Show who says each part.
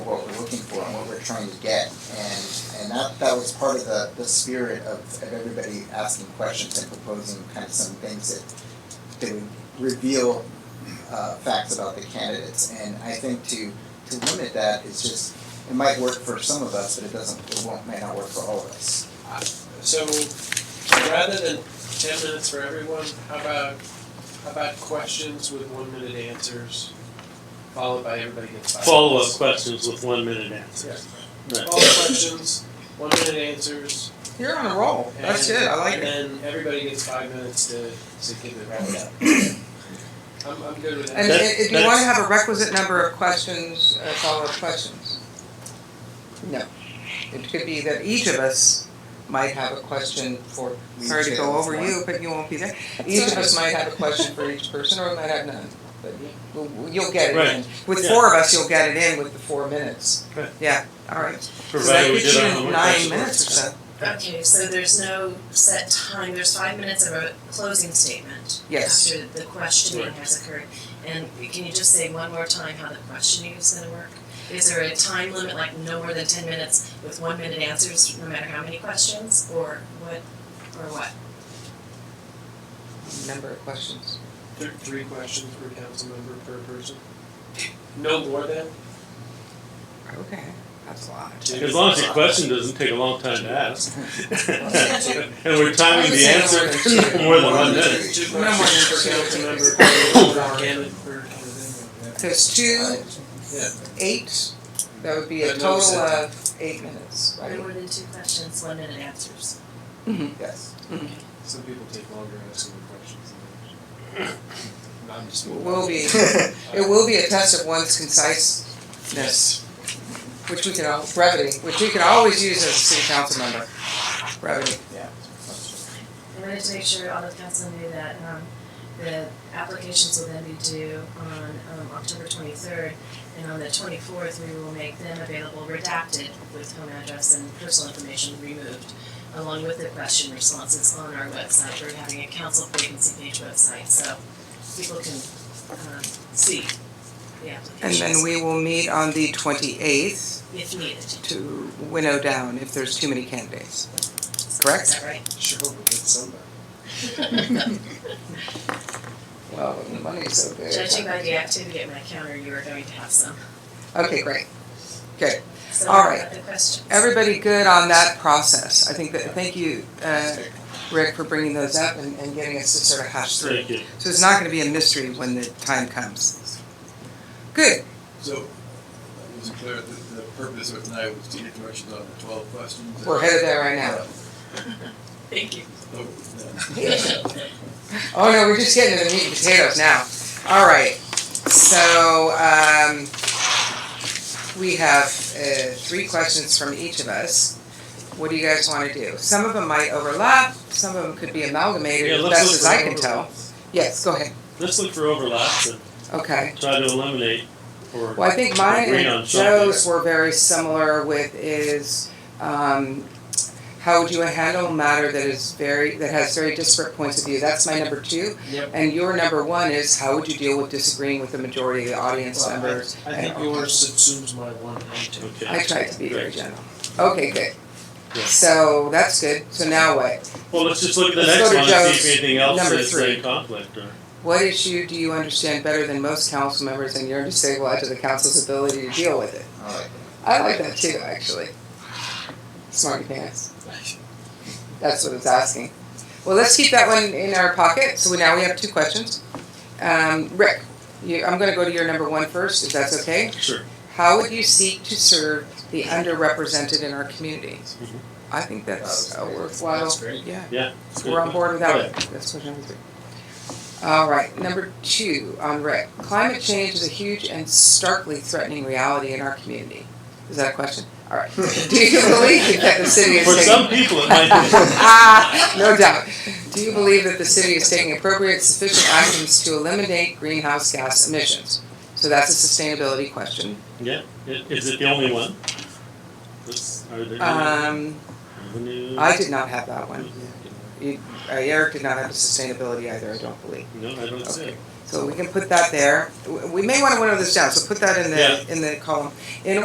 Speaker 1: trying to get. And, and that, that was part of the, the spirit of, of everybody asking questions and proposing kind of some things that, that would reveal, uh, facts about the candidates. And I think to, to limit that is just, it might work for some of us, but it doesn't, it won't, may not work for all of us.
Speaker 2: So rather than ten minutes for everyone, how about, how about questions with one minute answers, followed by everybody gets five minutes?
Speaker 3: Follow-up questions with one-minute answers.
Speaker 2: Follow-up
Speaker 3: Right.
Speaker 2: questions, one minute answers,
Speaker 4: You're on a roll.
Speaker 2: and
Speaker 4: That's it. I like
Speaker 2: and
Speaker 4: it.
Speaker 2: then everybody gets five minutes to to give their wrap up. I'm I'm good with that.
Speaker 4: And
Speaker 3: That-
Speaker 4: i- if you
Speaker 3: that's-
Speaker 4: want to have a requisite number of questions, uh, follow-up questions. No, it could be that each of us might have a question for.
Speaker 1: We
Speaker 4: Sorry to
Speaker 1: each
Speaker 4: go
Speaker 1: have
Speaker 4: over
Speaker 1: one.
Speaker 4: you, but you won't be there. Each of us might have a question for each person, or we might have none. But we'll- you'll get it in.
Speaker 3: Right.
Speaker 4: With
Speaker 3: Yeah.
Speaker 4: four of us, you'll get it in with the four minutes.
Speaker 3: Right.
Speaker 4: Yeah. All right. So that
Speaker 3: Provided we
Speaker 4: gets
Speaker 3: did our
Speaker 4: you
Speaker 3: homework.
Speaker 4: nine minutes or so.
Speaker 5: Okay, so there's no set time, there's five minutes of a closing statement.
Speaker 4: Yes.
Speaker 5: After the questioning
Speaker 3: Right.
Speaker 5: has occurred, and can you just say one more time how the questioning is gonna work? Is there a time limit, like no more than ten minutes with one minute answers, no matter how many questions, or what, or what?
Speaker 4: Number of questions.
Speaker 2: There are three questions per council member per person. No more than?
Speaker 4: Okay. That's a lot.
Speaker 3: As long as your question doesn't take a long time to ask.
Speaker 1: Yeah.
Speaker 3: And we're timing the
Speaker 4: Yeah.
Speaker 3: answer more than one minute.
Speaker 2: Two
Speaker 4: No more than
Speaker 2: questions per council
Speaker 4: two.
Speaker 2: member per candidate per kind of thing.
Speaker 4: There's two,
Speaker 2: Yeah.
Speaker 4: eight, that would be a
Speaker 2: But no
Speaker 4: total
Speaker 2: set.
Speaker 4: of eight minutes, right?
Speaker 5: No more than two questions, one minute answers.
Speaker 4: Mm-hmm.
Speaker 1: Yes.
Speaker 2: Some people take longer answering questions than others. I'm just.
Speaker 4: Will be, it will be a test of one's conciseness, which we can, al- brevity, which you can always use as a city council member, brevity.
Speaker 5: I wanted to make sure all the council knew that um the applications will then be due on um October twenty third. And on the twenty fourth, we will make them available redacted with home address and personal information removed. Along with the question responses on our website, we're having a council vacancy page website, so people can um see the
Speaker 4: And
Speaker 5: applications.
Speaker 4: then we will meet on the twenty-eighth
Speaker 5: If needed,
Speaker 4: to winnow down if there's too many candidates.
Speaker 5: is
Speaker 4: Correct?
Speaker 5: that right?
Speaker 2: Sure, we'll get somebody.
Speaker 4: Well, the money's so good.
Speaker 5: Judging by the activity at my counter, you are going to have some,
Speaker 4: Okay, great.
Speaker 5: so
Speaker 4: All
Speaker 5: what
Speaker 4: right.
Speaker 5: about the questions?
Speaker 4: Everybody good on that process. I think that, thank you, uh, Rick, for bringing those up and, and getting us to sort of hash through.
Speaker 3: Thank you.
Speaker 4: So it's not gonna be a mystery when the time comes. Good,
Speaker 6: So, I was clear, the, the purpose of tonight was to get directions on the twelve questions. Uh,
Speaker 4: we're headed there right now.
Speaker 5: Thank you.
Speaker 6: Oh, no.
Speaker 4: Oh no, we're just getting to the meat and potatoes now. All right, so, um, we have, uh, three questions from each of us. What do you guys wanna do? Some of them might overlap, some of them could be amalgamated,
Speaker 3: Yeah,
Speaker 4: as
Speaker 3: let's
Speaker 4: best
Speaker 3: look
Speaker 4: as
Speaker 3: for
Speaker 4: I can tell.
Speaker 3: overlaps.
Speaker 4: Yes, go ahead,
Speaker 3: Let's look for overlaps and
Speaker 4: okay.
Speaker 3: try to eliminate or.
Speaker 4: Well, I think mine
Speaker 3: Agree on
Speaker 4: and
Speaker 3: something.
Speaker 4: Joe's were very similar with is, um, how would you handle a matter that is very, that has very disparate points of view? That's my number two.
Speaker 2: Yep.
Speaker 4: And your number one is how would you deal with disagreeing with the majority of the audience
Speaker 2: Well, I-
Speaker 4: members?
Speaker 2: I think yours subsumes my one and two.
Speaker 3: Okay.
Speaker 4: I tried to be very
Speaker 3: Right.
Speaker 4: general. Okay, good.
Speaker 3: Yeah.
Speaker 4: So that's good. So now what?
Speaker 3: Well, let's just look at the
Speaker 4: Let's
Speaker 3: next
Speaker 4: go to
Speaker 3: one and see
Speaker 4: Joe's
Speaker 3: if anything else
Speaker 4: number
Speaker 3: is
Speaker 4: three.
Speaker 3: in conflict or.
Speaker 4: What issue do you understand better than most council members and you're disabled to the council's ability to deal with it?
Speaker 1: All right.
Speaker 4: I like that too, actually. Smarty pants. That's what it's asking. Well, let's keep that one in our pocket. So we- now we have two questions. Um, Rick, you, I'm going to go to your number one first, if that's okay.
Speaker 3: Sure.
Speaker 4: How would you seek to serve the underrepresented in our community?
Speaker 3: Mhm.
Speaker 4: I think that's a
Speaker 1: That was great.
Speaker 4: worthwhile.
Speaker 2: That's great.
Speaker 4: Yeah,
Speaker 3: It's
Speaker 4: we're on board with that. one. That's question number three. All right, number two on Rick. Climate change is a huge and starkly threatening reality in our community. Is that a question? All right. Do you believe that the city is
Speaker 3: For
Speaker 4: taking-
Speaker 3: some people, it might
Speaker 4: Ah, no doubt. Do you believe that the city is taking appropriate, sufficient actions to eliminate greenhouse gas emissions? So that's a sustainability question.
Speaker 3: be. Yeah, I- is it the only one? Let's- Are there any
Speaker 4: Um,
Speaker 3: revenue?
Speaker 4: I did not have that one. You- uh, Eric did not have a sustainability either, I don't believe.
Speaker 3: No, I don't see it.
Speaker 4: So we can put that there. W- We may want to winnow this down, so put that in
Speaker 3: Yeah.
Speaker 4: the, in the column. In